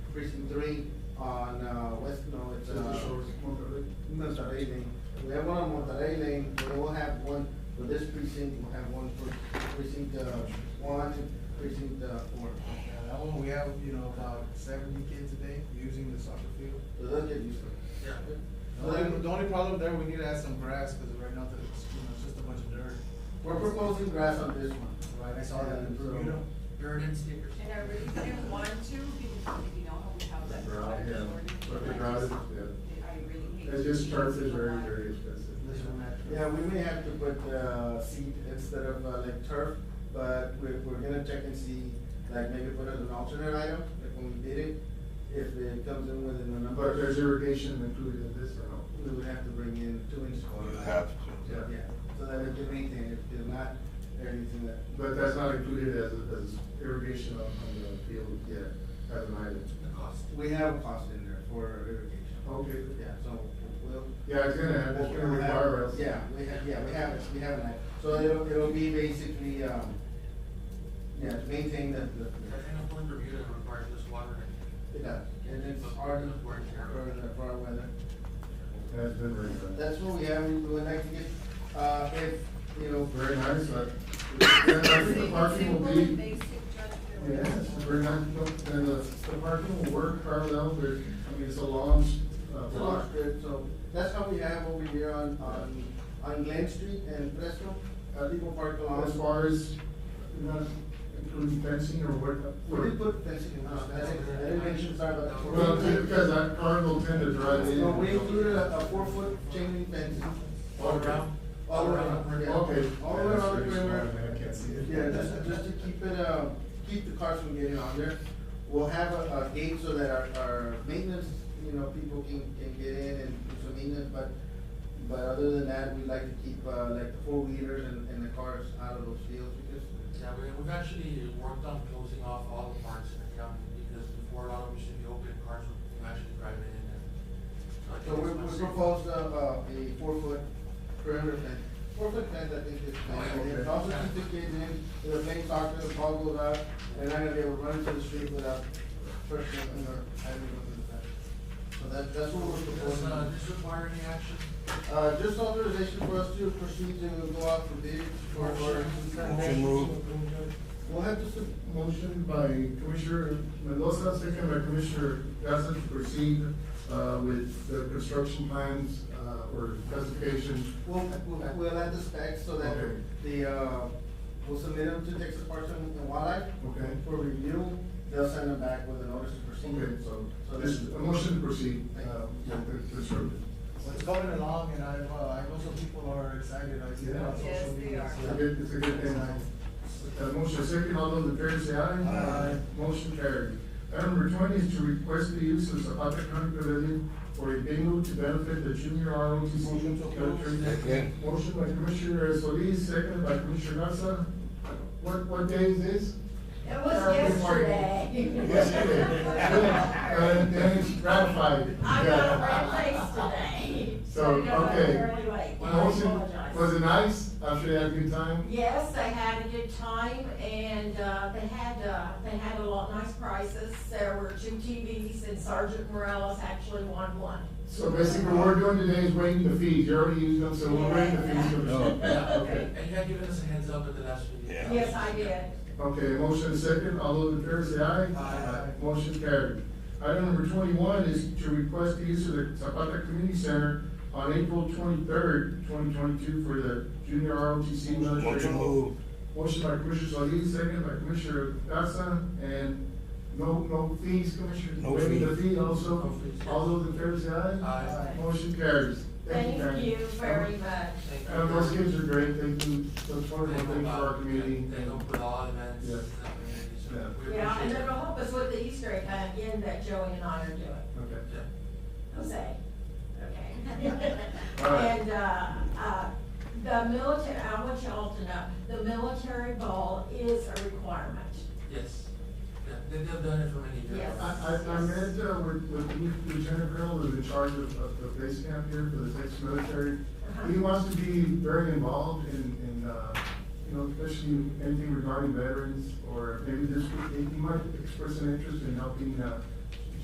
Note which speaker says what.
Speaker 1: precinct three on, uh, West, no, it's,
Speaker 2: Desert
Speaker 1: uh,
Speaker 2: Shores, Monterrey.
Speaker 1: Monterrey Lane. We have one on Monterrey Lane, we will have one for this precinct, we'll have one for precinct, uh, one, precinct, uh, four.
Speaker 2: Yeah, that one, we have, you know, about seventy kids a day using the soccer field.
Speaker 1: So they'll get used to it.
Speaker 2: Yeah. The
Speaker 1: So
Speaker 2: only,
Speaker 1: then,
Speaker 2: the only problem there, we need to add some grass, cause right now, it's, you know, it's just a bunch of dirt.
Speaker 1: We're proposing grass on this one.
Speaker 2: Right, I saw that,
Speaker 1: And so-
Speaker 2: you know, dirt and stickers.
Speaker 3: And I really didn't want to, because you know how we have that.
Speaker 4: Brown, yeah. But the ground is, yeah.
Speaker 3: I really hate.
Speaker 4: It's just turf
Speaker 3: to
Speaker 4: is very,
Speaker 3: want-
Speaker 4: very expensive.
Speaker 2: This one, that-
Speaker 1: Yeah, we may have to put, uh, seed instead of, uh, like turf, but we're, we're gonna check and see, like maybe put it an alternate item, like when we bid it, if it comes in within the number.
Speaker 4: But there's irrigation included in this or no?
Speaker 1: We would have to bring in two inch
Speaker 5: You
Speaker 1: corner.
Speaker 5: have to.
Speaker 1: Yeah, so that we can maintain it, if not, everything that.
Speaker 4: But that's not included as, as irrigation on, on the field yet, as an item.
Speaker 1: We have a cost in there for irrigation.
Speaker 4: Okay.
Speaker 1: Yeah, so we'll.
Speaker 4: Yeah, it's gonna, have- it's
Speaker 1: we'll-
Speaker 4: gonna
Speaker 1: we'll have-
Speaker 4: require us.
Speaker 1: Yeah, we have, yeah, we have, it, we have it, so it'll, it'll be basically, um, yeah, to maintain the, the.
Speaker 6: a point review that requires this water.
Speaker 1: It does, and it's hard to work for the, for our weather.
Speaker 4: That's been very nice.
Speaker 1: That's what we have, we would like to get, uh, if, you know,
Speaker 4: Very nice, but, and I think the parking will
Speaker 3: Simple,
Speaker 4: be,
Speaker 3: basic, just-
Speaker 4: yes, very nice, and the, the parking will work parallel, there, I mean, it's a launch, uh,
Speaker 1: It's a
Speaker 4: block.
Speaker 1: lot good, so that's how we have over here on, on, on Glen Street and Fresno, uh, people park along.
Speaker 4: As far as, not including fencing or what?
Speaker 1: We did put fencing in, uh, I didn't, I didn't mention, sorry about that.
Speaker 4: Well, because that car will tend to drive in.
Speaker 1: No, we included a, a four foot chain link fence
Speaker 6: All around?
Speaker 1: all around, yeah.
Speaker 4: Okay.
Speaker 1: All around the perimeter.
Speaker 4: I can't see it.
Speaker 1: Yeah, just, just to keep it, uh, keep the cars from getting on there. We'll have a, a gate so that our, our maintenance, you know, people can, can get in and do some maintenance, but, but other than that, we'd like to keep, uh, like the four wheelers and, and the cars out of those fields because,
Speaker 6: Yeah, we, we've actually worked on closing off all the parks in the county, because before a lot of them should be open, cars would actually drive in and. I
Speaker 1: so
Speaker 6: think
Speaker 1: we,
Speaker 6: it's
Speaker 1: we
Speaker 6: much safer.
Speaker 1: proposed, uh, uh, a four foot perimeter fence. Four foot fence, I think is nice, and it also keeps the kids in, they're playing soccer, the ball goes out, they're not gonna be able to run to the street without first, you know, having to go to the fence. So that, that's what we're
Speaker 6: Does,
Speaker 1: proposing.
Speaker 6: uh, this require any action?
Speaker 1: Uh, just authorization for us to proceed to go out for bids for, for,
Speaker 5: Motion move.
Speaker 1: we'll have to, sub-
Speaker 4: Motion by Commissioner Mendoza, second by Commissioner Gasa to proceed, uh, with the construction plans, uh, or classification.
Speaker 1: we'll, we'll, we'll add the specs so that
Speaker 4: Okay.
Speaker 1: the, uh, we'll submit them to Texas Parks and and Wildlife
Speaker 4: Okay.
Speaker 1: for review. They'll send them back with a notice to
Speaker 4: Okay,
Speaker 1: proceed.
Speaker 4: so,
Speaker 1: So
Speaker 4: this,
Speaker 1: that's-
Speaker 4: a motion to proceed, uh, with the construction.
Speaker 2: Well, it's going along, and I've, uh, I know some people are excited, I see that on
Speaker 3: Yes,
Speaker 2: social
Speaker 3: they
Speaker 2: media.
Speaker 3: are.
Speaker 2: so-
Speaker 4: It's a good, it's a good thing. Uh, motion second, all those in favor say aye.
Speaker 2: Aye.
Speaker 4: Motion carried. Item number twenty is to request the use of Zapata County Pavilion for a bingo to benefit the junior ROTC.
Speaker 2: Motion to approve.
Speaker 4: Country.
Speaker 5: Second.
Speaker 4: Motion by Commissioner Solis, second by Commissioner Garza. What, what day is this?
Speaker 7: It was yesterday.
Speaker 4: Yesterday. Uh, then it's ratified.
Speaker 7: I got a red
Speaker 4: Yeah.
Speaker 7: face today.
Speaker 4: So,
Speaker 7: I got up
Speaker 4: okay.
Speaker 7: early late. I
Speaker 4: Motion,
Speaker 7: apologize.
Speaker 4: was it nice? I'm sure you had a good time.
Speaker 7: Yes, they had a good time and, uh, they had, uh, they had a lot nice prizes. There were two TVs and Sergeant Morales actually won one.
Speaker 4: So basically, what we're doing today is waiting the fees, you already used them, so we'll wait the fees for the.
Speaker 5: Oh.
Speaker 6: Yeah, okay, and you had given us a heads up at the last meeting.
Speaker 5: Yeah.
Speaker 7: Yes, I did.
Speaker 4: Okay, motion is second, all those in favor say aye.
Speaker 2: Aye.
Speaker 4: Motion carried. Item number twenty-one is to request the use of the Zapata Community Center on April twenty-third, twenty twenty-two for the junior ROTC military.
Speaker 5: Motion move.
Speaker 4: Motion by Commissioner Solis, second by Commissioner Garza, and no, no fees, Commissioner.
Speaker 5: No
Speaker 4: Waiving the
Speaker 5: fee.
Speaker 4: fee also,
Speaker 6: No fees.
Speaker 4: all those in favor say aye.
Speaker 6: Aye.
Speaker 4: Motion carries.
Speaker 7: Thank
Speaker 4: Karen.
Speaker 7: you very much.
Speaker 6: Thank you.
Speaker 4: Uh, those kids are great, thank you, those wonderful
Speaker 6: They
Speaker 4: things for
Speaker 6: help
Speaker 4: our
Speaker 6: out,
Speaker 4: community.
Speaker 6: They help with all events.
Speaker 4: Yeah.
Speaker 6: in the community, so
Speaker 4: Yeah.
Speaker 6: we
Speaker 7: Yeah, and
Speaker 6: appreciate
Speaker 7: it'll
Speaker 6: it.
Speaker 7: help us with the Easter egg hunt again that Joey and I are doing.
Speaker 4: Okay.
Speaker 6: Yeah.
Speaker 7: Jose. Okay.
Speaker 4: All right.
Speaker 7: And, uh, uh, the military, I want y'all to know, the military ball is a requirement.
Speaker 6: Yes, yeah, they- they've done it for many years.
Speaker 7: Yes.
Speaker 4: I, I, I met uh, with, with Lieutenant Colonel, who's in charge of, of the base camp here for the Texas military. He wants to be very involved in, in, uh, you know, especially anything regarding veterans, or maybe this, would- he might express an interest in helping, uh,